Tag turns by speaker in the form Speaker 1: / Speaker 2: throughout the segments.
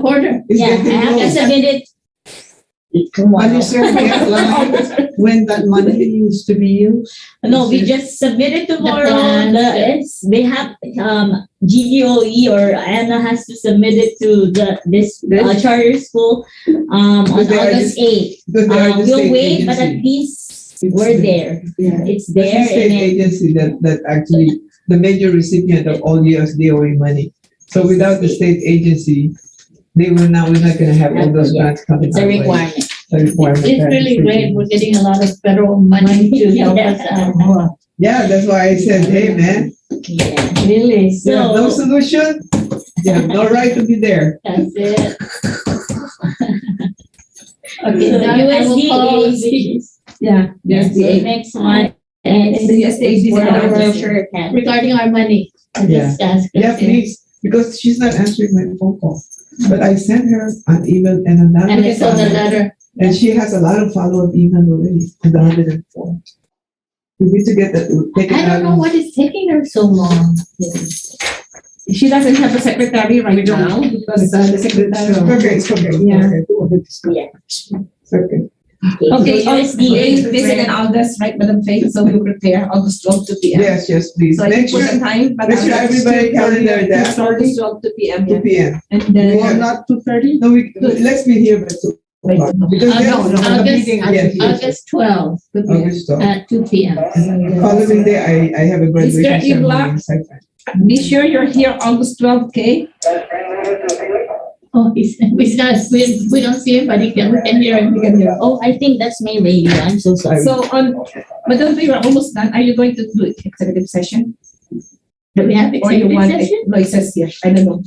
Speaker 1: quarter.
Speaker 2: It's
Speaker 1: Yeah, I
Speaker 2: getting
Speaker 1: have to
Speaker 2: close.
Speaker 1: submit it.
Speaker 2: Have you served the outline when that money needs to be used?
Speaker 3: No, we just submit it tomorrow.
Speaker 1: plan,
Speaker 3: The-
Speaker 1: yeah.
Speaker 3: it's, they have, um, GDOE or Anna has to submit it to the, this uh,
Speaker 2: This?
Speaker 3: charter school, um, on
Speaker 2: But they are
Speaker 3: August eighth.
Speaker 2: Because they are
Speaker 3: Uh,
Speaker 2: the
Speaker 3: we'll
Speaker 2: state
Speaker 3: wait, but at
Speaker 2: agency.
Speaker 3: least
Speaker 2: It's
Speaker 3: we're
Speaker 2: the-
Speaker 3: there.
Speaker 2: Yeah.
Speaker 3: It's
Speaker 2: That's
Speaker 3: there
Speaker 2: the state
Speaker 3: and then,
Speaker 2: agency that, that actually, the major recipient of all US DOE money. So without the state agency, they will not, we're not gonna have all those
Speaker 3: Yeah.
Speaker 2: grants coming.
Speaker 3: it's a
Speaker 2: our way.
Speaker 3: requirement.
Speaker 2: A requirement.
Speaker 1: It's
Speaker 2: that is
Speaker 1: really great. We're getting a lot of federal money to help us out.
Speaker 2: Yeah, that's why I said, hey, man,
Speaker 3: Yeah.
Speaker 1: Really?
Speaker 2: you have no
Speaker 3: So-
Speaker 2: solution, you have no right to be there.
Speaker 1: That's it. Okay,
Speaker 3: So
Speaker 1: now I will call.
Speaker 3: USDA, which is,
Speaker 4: Yeah.
Speaker 3: yes, the next one.
Speaker 4: And the USDA is
Speaker 3: Whatever
Speaker 4: our-
Speaker 3: sure can.
Speaker 1: Regarding our money. I
Speaker 2: Yeah.
Speaker 1: just asked.
Speaker 2: Yeah, please, because she's not answering my phone call. But I sent her an email and another.
Speaker 1: And it's on the
Speaker 2: follow-up.
Speaker 1: letter.
Speaker 2: And she has a lot of follow-up email already, to the hundred and four. We need to get that, take it
Speaker 1: I don't know
Speaker 2: out.
Speaker 1: what is taking her so long.
Speaker 4: She doesn't have a secretary right now because uh, the
Speaker 2: It's
Speaker 4: secretary.
Speaker 2: okay, it's okay.
Speaker 4: Yeah.
Speaker 3: Yeah.
Speaker 2: It's okay.
Speaker 3: Okay, oh,
Speaker 4: Okay,
Speaker 3: so USDA.
Speaker 4: USDA, this is in August, right, Madam Faith? So we prepare August twelve to P M.
Speaker 2: Yes, yes, please.
Speaker 4: So I
Speaker 2: Make
Speaker 4: think
Speaker 2: sure,
Speaker 4: we're on time, but.
Speaker 2: make sure
Speaker 4: August
Speaker 2: everybody
Speaker 4: 12 to
Speaker 2: calendar that.
Speaker 4: It's August twelve to P M,
Speaker 2: two P
Speaker 4: yeah.
Speaker 2: M.
Speaker 4: And
Speaker 2: We
Speaker 4: then.
Speaker 2: have-
Speaker 4: not two thirty?
Speaker 2: No, we,
Speaker 4: Good.
Speaker 2: let's be here by two.
Speaker 4: Wait,
Speaker 2: o'clock, Because
Speaker 1: August-
Speaker 2: we have a
Speaker 1: August- Uh,
Speaker 2: meeting, yes, yes.
Speaker 1: August twelfth
Speaker 2: August twelve.
Speaker 1: at two P M.
Speaker 2: Following day, I, I have a graduation ceremony.
Speaker 4: Ibla?
Speaker 2: in Saipan.
Speaker 4: Be sure you're here August twelve, okay?
Speaker 1: Oh, he's, he's not, we, we don't see him, but he can, we can hear him.
Speaker 3: Oh, I think that's my radio. I'm so sorry.
Speaker 4: So on, Madam Faith, we're almost done. Are you going to do executive session?
Speaker 1: Do we have
Speaker 4: Or you
Speaker 1: executive
Speaker 4: want,
Speaker 1: session?
Speaker 4: no, it says here, I don't know.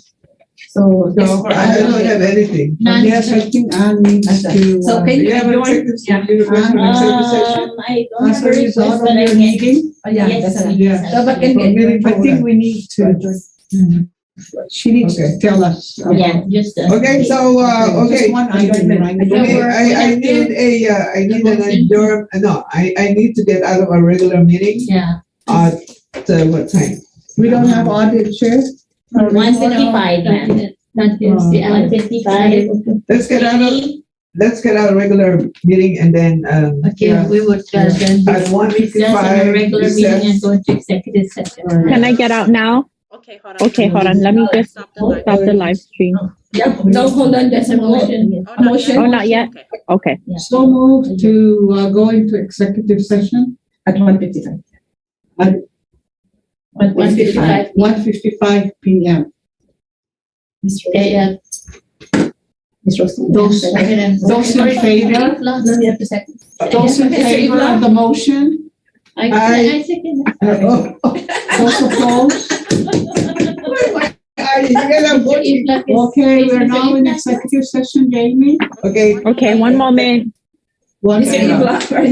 Speaker 4: So.
Speaker 2: No, I don't have anything.
Speaker 1: None.
Speaker 5: Yes, I think Anne needs to.
Speaker 4: So
Speaker 5: uh,
Speaker 4: can
Speaker 2: Do
Speaker 4: you,
Speaker 2: you have an
Speaker 4: you want-
Speaker 2: executive,
Speaker 4: yeah.
Speaker 2: do you request an executive session? Ah,
Speaker 3: Um, I don't have a
Speaker 5: Answer is
Speaker 3: request,
Speaker 5: out
Speaker 3: but
Speaker 5: of
Speaker 3: I
Speaker 5: your
Speaker 3: can.
Speaker 5: meeting.
Speaker 4: oh, yeah,
Speaker 3: Yes,
Speaker 4: that's
Speaker 3: I
Speaker 4: it.
Speaker 3: can.
Speaker 4: So, but can
Speaker 5: From
Speaker 4: we-
Speaker 5: meeting I think
Speaker 2: folder.
Speaker 5: we need to, Mm-hmm. she needs
Speaker 2: Okay.
Speaker 5: to tell us. about-
Speaker 3: Yeah, just. uh,
Speaker 2: Okay, so, uh,
Speaker 5: Just
Speaker 2: okay.
Speaker 5: one item, right?
Speaker 2: I
Speaker 1: Yeah,
Speaker 2: mean,
Speaker 1: we're-
Speaker 2: I, I
Speaker 1: we're-
Speaker 2: need a, uh, I need an
Speaker 1: Motion.
Speaker 2: adjourn, uh, no, I, I need to get out of our regular meeting
Speaker 1: Yeah.
Speaker 2: at, uh, what time?
Speaker 5: We don't have audit chair.
Speaker 3: One fifty-five,
Speaker 1: That
Speaker 3: ma'am.
Speaker 1: is- That is the
Speaker 3: One
Speaker 1: other.
Speaker 3: fifty-five.
Speaker 2: Let's get out of, let's get out of regular meeting and then, um,
Speaker 1: Okay, we would, uh, then
Speaker 2: at one
Speaker 1: recess
Speaker 2: fifty-five,
Speaker 1: on a regular meeting and
Speaker 2: recess.
Speaker 1: go into executive session.
Speaker 6: Can I get out now?
Speaker 7: Okay, hold on.
Speaker 6: Okay, hold on. Let me just
Speaker 7: Stop the live.
Speaker 6: stop the live stream.
Speaker 4: Yeah, no, hold on, there's a motion.
Speaker 7: Oh, not
Speaker 4: motion.
Speaker 7: yet.
Speaker 6: Oh, not yet.
Speaker 7: Okay.
Speaker 6: Okay.
Speaker 5: So moved to uh, go into executive session
Speaker 4: At one fifty-five.
Speaker 1: But one fifty-five
Speaker 5: at one fifty-five P M.
Speaker 1: AM.
Speaker 4: Ms. Rosen.
Speaker 5: Those, those in favor,
Speaker 1: No, no, you have to second.
Speaker 5: those in favor of the motion,
Speaker 1: I,
Speaker 2: Aye.
Speaker 1: I second.
Speaker 2: Oh,
Speaker 5: those opposed?
Speaker 2: I- you gotta vote.
Speaker 1: If luck is-
Speaker 5: Okay,
Speaker 1: if
Speaker 5: we're
Speaker 1: it's
Speaker 5: now in
Speaker 1: luck,
Speaker 5: executive session, Jamie.
Speaker 2: Okay.
Speaker 6: Okay, one moment.
Speaker 5: One
Speaker 4: Mr.
Speaker 5: favor.
Speaker 4: Ibla, where